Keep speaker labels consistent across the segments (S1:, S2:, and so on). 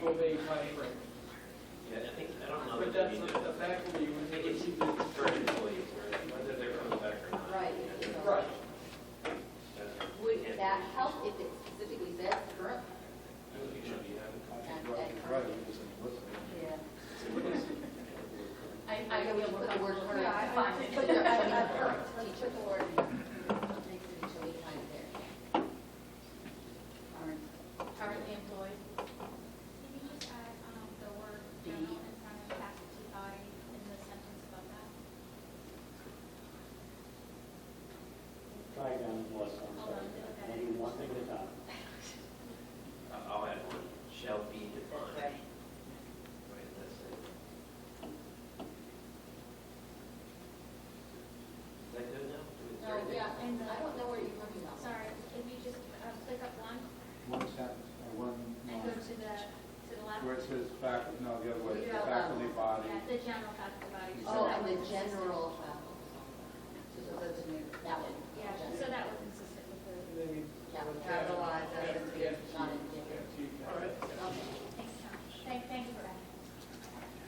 S1: five, right?
S2: Yeah, I think, I don't know
S1: But
S2: that they
S1: that's,
S2: need
S1: a-
S2: to,
S1: the faculty
S2: I
S1: would
S2: think
S1: make
S2: it's
S1: it.
S2: for employees, whether they're coming back or not.
S3: Right.
S2: you know,
S1: Right,
S2: that's-
S3: Would that help if it specifically says current?
S2: I think it should be having
S3: Yeah.
S2: consequences.
S4: I,
S3: I know we put the word current.
S4: Yeah, I- I-
S3: Put your, I mean, current, teacher or initially kind of there. Current.
S4: Currently employed.
S5: Can you just add, um, the word general in front of faculty body in the sentence above that?
S6: Try down the list, I'm
S5: Hold on,
S6: sorry.
S5: okay.
S6: Maybe one thing at a time.
S2: Uh, I'll add one, shall be defined. Right, that's it. Is that good now? Do we-
S3: No,
S7: Oh,
S3: yeah, and I don't know where you're coming from.
S5: Sorry, can you just, um, click up one
S8: One sentence, or one
S5: and go
S8: line,
S5: to the, to the left?
S8: where it says faculty, no, the other way,
S3: Read
S8: the
S3: out
S8: faculty body.
S5: Yeah, the general faculty body. so
S3: Oh,
S5: that
S3: and the
S5: was consistent.
S3: general, uh, so that's new, that one.
S5: Yeah, so that was consistent with the,
S1: and then you.
S3: Yeah, we capitalize, that doesn't
S1: Yeah,
S3: not
S1: yeah,
S3: indicative.
S1: yeah.
S2: All right.
S3: Okay.
S5: thanks, Tom. Thank, thank you for that.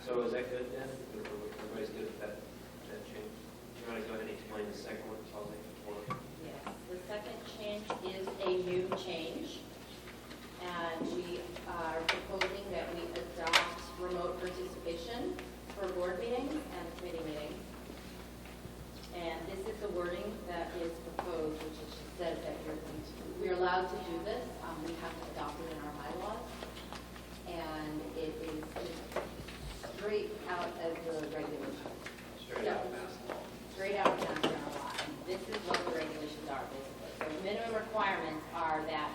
S2: So is that good then? Everybody's good with that, that change? Do you want to go ahead and explain the second one, Paul, before?
S7: Yes, the second change is a new change. And we are proposing that we adopt remote participation for board meetings and committee meetings. And this is the wording that is proposed, which is just said that you're, going to- we're allowed to do this. Um, We have to adopt it in our bylaws. And it is just straight out of the regulation
S2: Straight out of Mass Law.
S7: straight out of Mass General Law. This is what the regulations are, basically. So the minimum requirements are that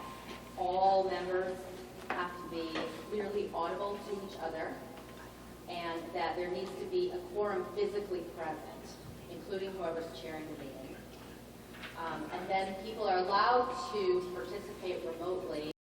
S7: all members have to be clearly audible to each other, and that there needs to be a quorum physically present, including whoever's chairing the meeting. Um, And then people are allowed to participate remotely